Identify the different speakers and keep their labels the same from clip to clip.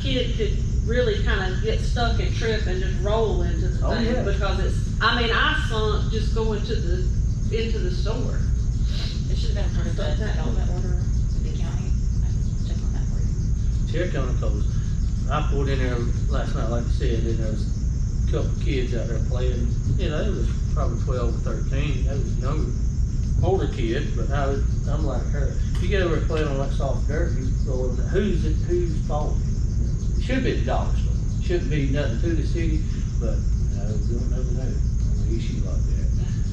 Speaker 1: kid could really kind of get stuck and trip and just roll into the
Speaker 2: Oh, yeah.
Speaker 1: thing because it's, I mean, I sunk just going to the, into the store.
Speaker 3: It should have been part of the development order to the county. I can check on that for you.
Speaker 2: Tear county codes, I pulled in there last night, like I said, and there was a couple kids out there playing, you know, they was probably twelve or thirteen, they was younger, older kids, but I was, I'm like her. You get over there playing on that soft dirt, you go in, there, who's it, whose fault? It Should be the dog's fault, shouldn't be nothing to the city, but, you know, we don't ever know on the issue like that.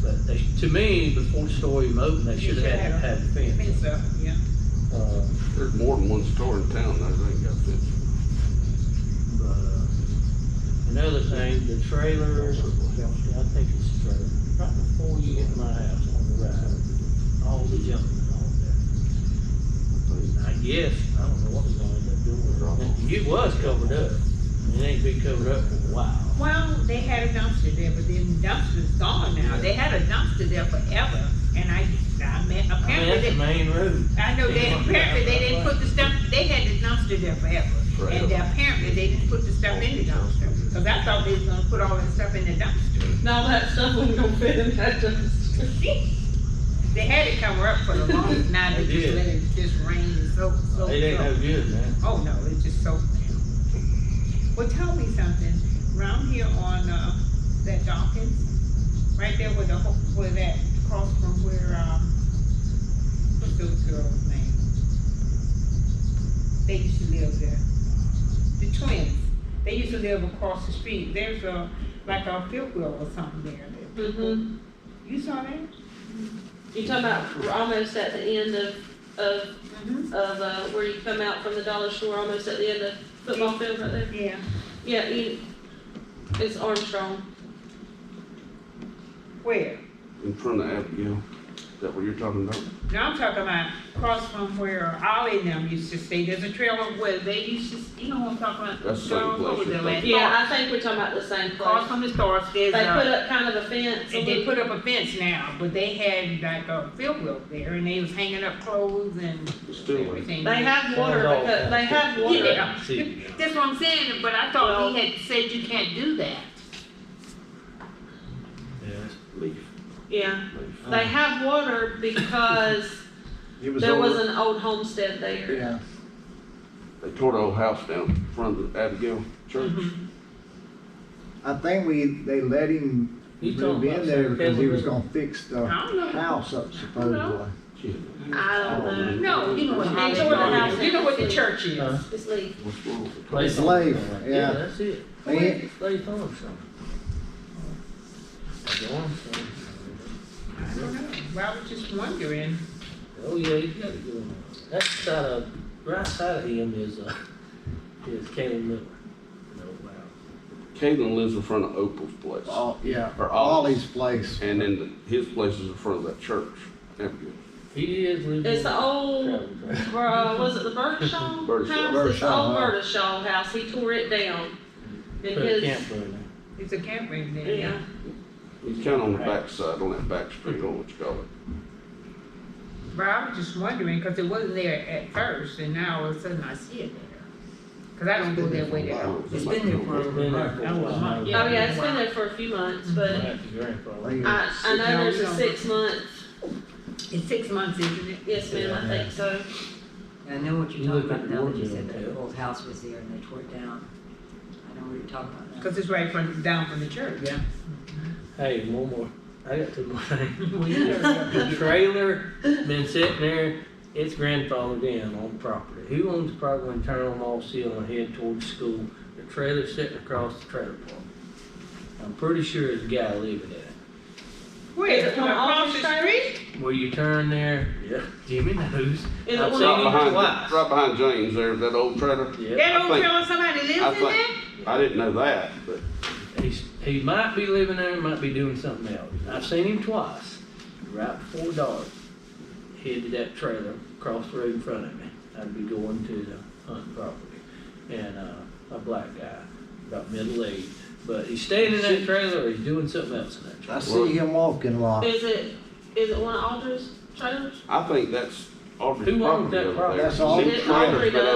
Speaker 2: But they, to me, before the story of Moton, they should have had, had the
Speaker 4: I think
Speaker 2: fence.
Speaker 4: so, yeah.
Speaker 2: Uh,
Speaker 5: There's more than one store in town that ain't got fence.
Speaker 2: But, uh, another thing, the trailer, I think it's the trailer, right before you get to my house on the right, all the junk is all there. And I guess, I don't know what we're gonna end up doing. It was covered up, it ain't been covered up for a while.
Speaker 4: Well, they had a dumpster there, but then the dumpster's gone now. They had a dumpster there forever, and I, I mean,
Speaker 2: I mean, that's the
Speaker 4: apparently they,
Speaker 2: main road.
Speaker 4: I know they, apparently they didn't put the stuff, they had the dumpster there forever. And
Speaker 5: Forever.
Speaker 4: apparently they didn't put the stuff in the dumpster, cause I thought they was gonna put all that stuff in the dumpster.
Speaker 1: Now that stuff wasn't gonna fit in that dumpster.
Speaker 4: They had it cover up for the longest, now they
Speaker 2: They
Speaker 4: just
Speaker 2: did.
Speaker 4: let it just rain and so, so.
Speaker 2: It ain't no good, man.
Speaker 4: Oh, no, it's just so. Well, tell me something, round here on, uh, that Dawkins, right there where the, ho- where that, across from where, um, what's those girls' name? They used to live there, the twins, they used to live across the street, there's a, like a field wheel or something there. that people-
Speaker 1: Mm-hmm.
Speaker 4: You saw that?
Speaker 1: You talking about almost at the end of, of,
Speaker 4: Mm-hmm.
Speaker 1: of, uh, where you come out from the dollar store, almost at the end of football field right there?
Speaker 4: Yeah,
Speaker 1: Yeah, you, it's Armstrong.
Speaker 4: where?
Speaker 5: In front of Abigail, is that what you're talking about?
Speaker 4: Now I'm talking about across from where Ollie and them used to stay, there's a trailer where they used to, you know what I'm talking about?
Speaker 5: That's the same
Speaker 4: Girls
Speaker 5: place
Speaker 4: over there
Speaker 5: you're
Speaker 4: last fall.
Speaker 1: Yeah, I think we're talking about the same
Speaker 4: Across
Speaker 1: place.
Speaker 4: from the store,
Speaker 1: They
Speaker 4: there's
Speaker 1: put
Speaker 4: a,
Speaker 1: up kind of a fence. a
Speaker 4: and they
Speaker 1: little-
Speaker 4: put up a fence now, but they had like a field wheel there and they was hanging up clothes and
Speaker 5: It's still, like-
Speaker 4: everything.
Speaker 1: They have water, because they have water.
Speaker 4: Yeah.
Speaker 2: See,
Speaker 4: That's what I'm saying, but I thought he had said you can't do that.
Speaker 2: yeah.
Speaker 5: leaf,
Speaker 1: Yeah,
Speaker 5: leaf.
Speaker 1: they have water because
Speaker 6: It was
Speaker 1: there was
Speaker 6: over,
Speaker 1: an old homestead there.
Speaker 6: yeah,
Speaker 5: They tore the old house down in front of the Abigail Church.
Speaker 4: Mm-hmm.
Speaker 1: Mm-hmm.
Speaker 6: I think we, they let him
Speaker 2: You talking
Speaker 6: move in
Speaker 2: about
Speaker 6: there because he was
Speaker 2: September?
Speaker 6: gonna fix the
Speaker 4: I don't know.
Speaker 6: house up supposedly.
Speaker 5: Gee,
Speaker 1: I don't know,
Speaker 4: No, you know what,
Speaker 1: They
Speaker 4: you know what the
Speaker 1: house-
Speaker 4: house, you know what the church is.
Speaker 2: Uh,
Speaker 1: it's leaf.
Speaker 5: what's wrong with it?
Speaker 2: Place
Speaker 6: Slave,
Speaker 2: on-
Speaker 6: yeah.
Speaker 2: That's it.
Speaker 6: And-
Speaker 2: Slave farm, so. Like Armstrong.
Speaker 4: I don't know, Well, I was just wondering.
Speaker 2: Oh yeah, you gotta go. on. That side of, right side of him is, uh, is Caleb Miller. No, wow.
Speaker 5: Caitlin lives in front of Opal's place.
Speaker 6: Oh, yeah,
Speaker 5: Or
Speaker 6: Ollie's place.
Speaker 5: And then the- his place is in front of that church, Abigail.
Speaker 2: He is living.
Speaker 1: It's the old,
Speaker 2: Travel trailer.
Speaker 1: uh, was it the Birdshaw house?
Speaker 5: Birdshaw.
Speaker 1: It's the
Speaker 6: Birdshaw,
Speaker 1: old
Speaker 6: huh?
Speaker 1: Birdshaw house, he tore it down. And
Speaker 2: Put a
Speaker 1: his,
Speaker 2: camper in
Speaker 4: It's a campground there.
Speaker 1: yeah,
Speaker 5: He's kinda on the backside, on that back street, I don't know what you call it.
Speaker 4: But I was just wondering, cause it wasn't there at first, and now all of a sudden I see it there. Cause I don't go that way
Speaker 5: I
Speaker 4: there.
Speaker 5: don't know, it
Speaker 6: It's
Speaker 5: might
Speaker 6: been there
Speaker 5: be
Speaker 6: for
Speaker 5: over.
Speaker 2: there. Been there for a
Speaker 4: That was my-
Speaker 2: while.
Speaker 1: oh yeah, it's been there for a few months, but
Speaker 2: Right, your grandfather.
Speaker 6: Like,
Speaker 1: I, I know there's a six month,
Speaker 4: It's six months, isn't it?
Speaker 1: yes ma'am, I think so.
Speaker 7: I know what
Speaker 2: You
Speaker 7: you're talking
Speaker 2: look at
Speaker 7: about now that you
Speaker 2: Warden
Speaker 7: said that
Speaker 2: Hotel.
Speaker 7: old house was there and they tore it down. I know what you're talking about now.
Speaker 4: Cause it's right from, down from the church, yeah.
Speaker 2: Hey, one more, I got two more things.
Speaker 4: Well, you never-
Speaker 2: The trailer been sitting there, it's grandfathered in on the property. Who owns the property when turn on all seal and head toward the school? The trailer's sitting across the trailer park. I'm pretty sure it's a guy living in it.
Speaker 4: Wait,
Speaker 1: Is it on
Speaker 4: across
Speaker 1: Office
Speaker 4: the street?
Speaker 2: Where you turn there, yeah, Jimmy knows.
Speaker 1: Is
Speaker 2: I've
Speaker 1: it one
Speaker 2: seen
Speaker 5: Right
Speaker 1: of,
Speaker 2: it.
Speaker 5: behind,
Speaker 2: Twice.
Speaker 5: right behind James there, that old trailer.
Speaker 2: Yeah,
Speaker 4: That
Speaker 5: I
Speaker 4: old
Speaker 5: think-
Speaker 4: girl, somebody
Speaker 5: I
Speaker 4: lives in there?
Speaker 5: think- I didn't know that, but
Speaker 2: he's, he might be living there, might be doing something else. I've seen him twice, right before dark, headed that trailer across the road in front of me. I'd be going to the hunt property, and, uh, a black guy, about middle age, but he's staying in that trailer or he's doing something else in that trailer.
Speaker 6: I see him walking a lot.
Speaker 1: is it, is it one of Alders' trailers?
Speaker 5: I think that's Audrey's
Speaker 2: Who owns
Speaker 5: property
Speaker 2: that
Speaker 5: over there.
Speaker 2: property?
Speaker 6: That's all-
Speaker 5: See,
Speaker 1: Audrey
Speaker 5: trailer's been
Speaker 1: does.